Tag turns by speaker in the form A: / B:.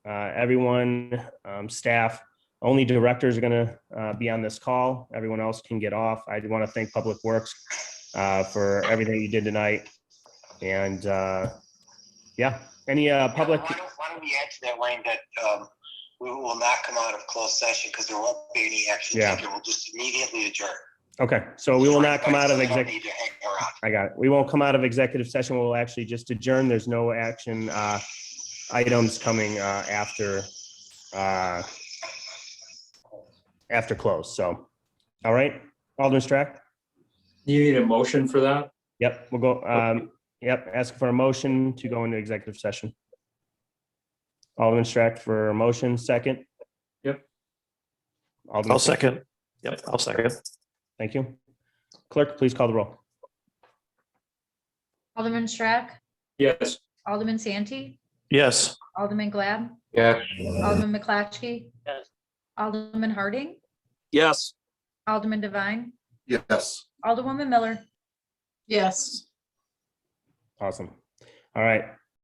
A: Uh, everyone, um, staff, only directors are gonna, uh, be on this call. Everyone else can get off. I do want to thank Public Works, uh, for everything you did tonight. And, uh, yeah, any, uh, public,
B: Why don't- why don't we add to that, Wayne, that um, we will not come out of closed session because there won't be any action
A: Yeah.
B: taken. We'll just immediately adjourn.
A: okay, so we will not come out of
B: So we don't
A: executive.
B: need to hang around.
A: I got it. We won't come out of executive session. We'll actually just adjourn. There's no action uh, items coming uh, after uh, after close. So, all right, Alderman Strack?
C: You need a motion for that?
A: Yep, we'll go, um, yep, ask for a motion to go into executive session. Alderman Strack for a motion, second?
C: Yep.
A: Alderman,
D: I'll second. Yep, I'll second.
A: thank you. Clerk, please call the roll.
E: Alderman Strack,
C: Yes.
E: Alderman Santee,
D: Yes.
E: Alderman Glad,
C: Yes.
E: Alderman McClatchy. Alderman Harding,
F: Yes.
E: Alderman Devine,
G: Yes.
E: Alderwoman Miller.
H: Yes.
A: Awesome. All right,